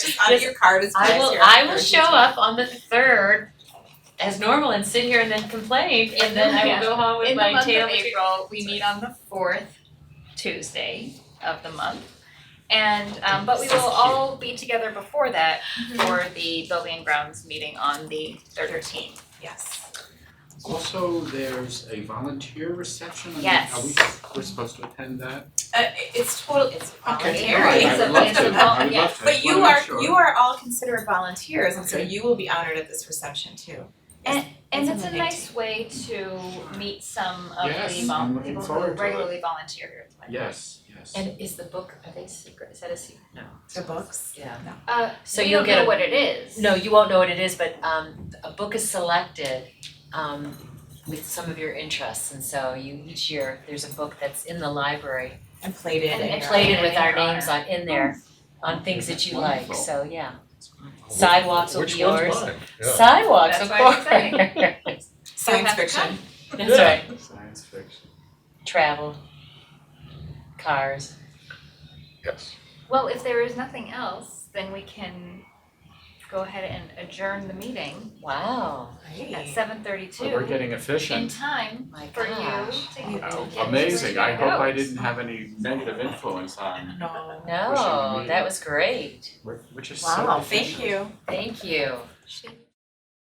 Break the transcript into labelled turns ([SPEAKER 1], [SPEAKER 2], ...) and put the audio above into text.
[SPEAKER 1] Just out of your card as
[SPEAKER 2] I
[SPEAKER 1] fast
[SPEAKER 2] will,
[SPEAKER 1] here.
[SPEAKER 2] I will show up on the third as normal and sit here and then complain, and then I will go home with
[SPEAKER 3] In the
[SPEAKER 2] my
[SPEAKER 3] month of
[SPEAKER 2] tail between.
[SPEAKER 3] April, we meet on the fourth Tuesday of the month. And um but we will all be together before that for the building and grounds meeting on the thirteenth.
[SPEAKER 1] Yes.
[SPEAKER 4] Also, there's a volunteer reception, and
[SPEAKER 3] Yes.
[SPEAKER 4] are we, we're supposed to attend that?
[SPEAKER 1] Uh, it- it's total, it's
[SPEAKER 4] Okay,
[SPEAKER 1] voluntary.
[SPEAKER 4] all right, I
[SPEAKER 3] It's
[SPEAKER 4] would
[SPEAKER 3] a-
[SPEAKER 4] love
[SPEAKER 3] it's
[SPEAKER 4] to,
[SPEAKER 3] a vol-
[SPEAKER 4] I would
[SPEAKER 3] yeah.
[SPEAKER 4] love to, I
[SPEAKER 1] But
[SPEAKER 4] just
[SPEAKER 1] you
[SPEAKER 4] wanna make
[SPEAKER 1] are,
[SPEAKER 4] sure.
[SPEAKER 1] you are all considered volunteers, and so
[SPEAKER 4] Okay.
[SPEAKER 1] you will be honored at this reception too.
[SPEAKER 3] And
[SPEAKER 1] It's
[SPEAKER 3] it's
[SPEAKER 1] on
[SPEAKER 3] a
[SPEAKER 1] the
[SPEAKER 3] nice way to meet some of the
[SPEAKER 4] Yes,
[SPEAKER 3] vol-
[SPEAKER 4] I'm looking
[SPEAKER 3] people who
[SPEAKER 4] forward to it.
[SPEAKER 3] regularly volunteer here. at the library.
[SPEAKER 4] Yes, yes.
[SPEAKER 2] And is the book, are they secret, is that a secret? No.
[SPEAKER 1] The books.
[SPEAKER 2] Yeah.
[SPEAKER 3] Uh
[SPEAKER 2] So
[SPEAKER 3] we
[SPEAKER 2] you'll
[SPEAKER 3] don't
[SPEAKER 2] get
[SPEAKER 3] know
[SPEAKER 2] a-
[SPEAKER 3] what it is.
[SPEAKER 2] No, you won't know what it is, but um a book is selected um with some of your interests, and so you each year, there's a book that's in the library
[SPEAKER 1] And plated
[SPEAKER 3] And-
[SPEAKER 1] and.
[SPEAKER 3] and
[SPEAKER 2] plated with our
[SPEAKER 3] In your
[SPEAKER 2] names on in there on things that you like,
[SPEAKER 5] Wonderful.
[SPEAKER 2] so yeah. Sidewalks will be yours.
[SPEAKER 5] Which one's mine? Yeah.
[SPEAKER 2] Sidewalks,
[SPEAKER 3] That's
[SPEAKER 2] of
[SPEAKER 3] why I'm
[SPEAKER 2] course.
[SPEAKER 3] saying.
[SPEAKER 1] Science
[SPEAKER 3] have to
[SPEAKER 1] fiction.
[SPEAKER 2] That's right.
[SPEAKER 4] Science fiction.
[SPEAKER 2] Travel, cars.
[SPEAKER 5] Yes.
[SPEAKER 3] Well, if there is nothing else, then we can go ahead and adjourn the meeting
[SPEAKER 2] Wow,
[SPEAKER 3] at
[SPEAKER 1] Great.
[SPEAKER 3] seven thirty two.
[SPEAKER 4] We're getting
[SPEAKER 3] in
[SPEAKER 4] efficient.
[SPEAKER 3] time
[SPEAKER 2] my
[SPEAKER 3] for you to
[SPEAKER 2] gosh.
[SPEAKER 3] to get
[SPEAKER 4] Oh,
[SPEAKER 3] your
[SPEAKER 4] Amazing, I hope I
[SPEAKER 3] vote.
[SPEAKER 4] didn't have any negative influence on,
[SPEAKER 1] No.
[SPEAKER 4] Wish you
[SPEAKER 2] No,
[SPEAKER 4] were me.
[SPEAKER 2] that was great.
[SPEAKER 4] which is so
[SPEAKER 1] Wow,
[SPEAKER 4] efficient.
[SPEAKER 1] thank you.
[SPEAKER 2] Thank you.
[SPEAKER 3] She-